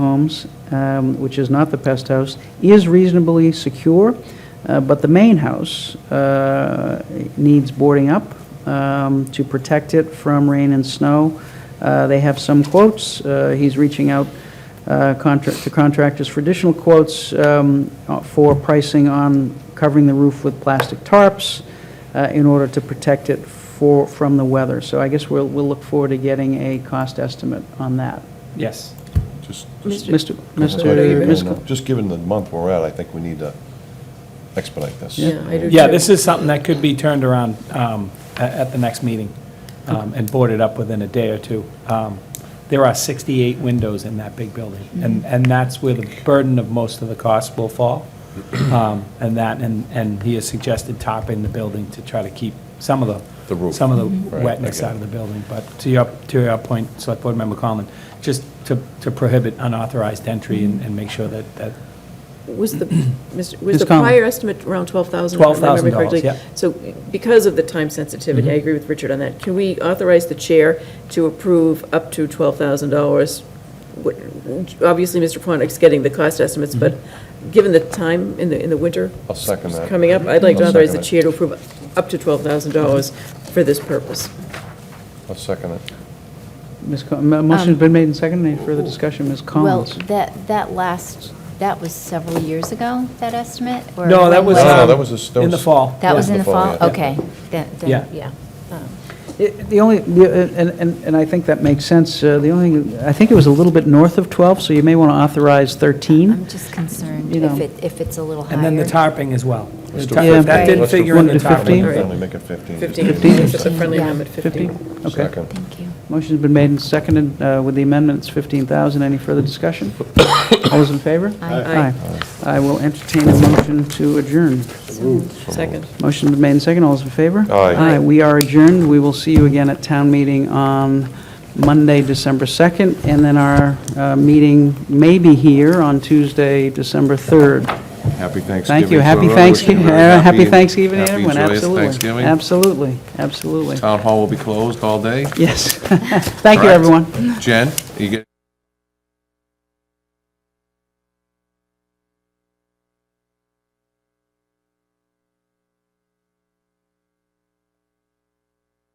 homes, um, which is not the pest house, is reasonably secure, uh, but the main house uh, needs boarding up um, to protect it from rain and snow. Uh, They have some quotes. Uh, He's reaching out uh, contra- to contractors for additional quotes um, uh, for pricing on covering the roof with plastic tarps uh, in order to protect it for, from the weather. So I guess we'll, we'll look forward to getting a cost estimate on that. Yes. Just, just- Mr. Mr. Ms. Mr. just given the month we're at, I think we need to expedite this. Yeah, I do Yeah, too. this is something that could be turned around um, a- at the next meeting um, and boarded up within a day or two. Um, There are 68 windows in that big building, Mm-hmm. and, and that's where the burden of most of the costs will fall. Um, And that, and, and he has suggested topping the building to try to keep some of the. The roof. Mm-hmm. Some of the Right, wetness okay. out of the building. But to your, to your point, Select Board Member Conlon, just to, to prohibit unauthorized entry and, Mm-hmm. and make sure that, that Was the, Mr. Ms. was the Conlon. prior estimate around 12,000? if I remember $12,000, correctly? yeah. Mm-hmm. So because of the time sensitivity, I agree with Richard on that. Can we authorize the chair to approve up to $12,000? What- Obviously, Mr. Pontic's getting the cost estimates, but Mm-hmm. given the time in the, in the winter I'll second that. coming up, I'd like to I'll authorize the second chair to approve up to $12,000 for this purpose. Mm-hmm. I'll second it. Ms. Con- mo- Motion's been made and seconded. Any further discussion? Ms. Um, Well, Collins? that, that last, that was several years ago, that estimate? or No, that when was, No, no, um, that was this- that in the was- fall. That was Yeah. in the fall? yeah. Okay. Then- then- Yeah. Yeah. Um, It- The only, the- and, and and I think that makes sense. Uh, The only, I think it was a little bit north of 12, so you may want to authorize 13. I'm just concerned You if know. it, if it's a little higher. And then the tarping as well. The Let's do tar- it. if That Yeah. didn't Let's do figure in the 15. tarping. Right. Only make it 15. 15, Fifteen? just a friendly amendment, 15? 15. Okay. Second. Thank you. Motion's been made and seconded uh, with the amendments, 15,000. Any further discussion? All those in favor? Aye. I will entertain a motion to adjourn. Second. Motion been made and seconded. All those in favor? Aye. Aye. We are adjourned. We will see you again at town meeting on Monday, December 2nd, and then our uh, meeting may be here on Tuesday, December 3rd. Happy Thanksgiving. Thank you. to Happy everyone. Wishing Thanksgiving, you a uh, happy happy- Thanksgiving to happy, everyone, joyous absolutely. Thanksgiving. Absolutely, absolutely. Town hall will be closed all day. Yes. Thank you, Correct. everyone. Jen, you get.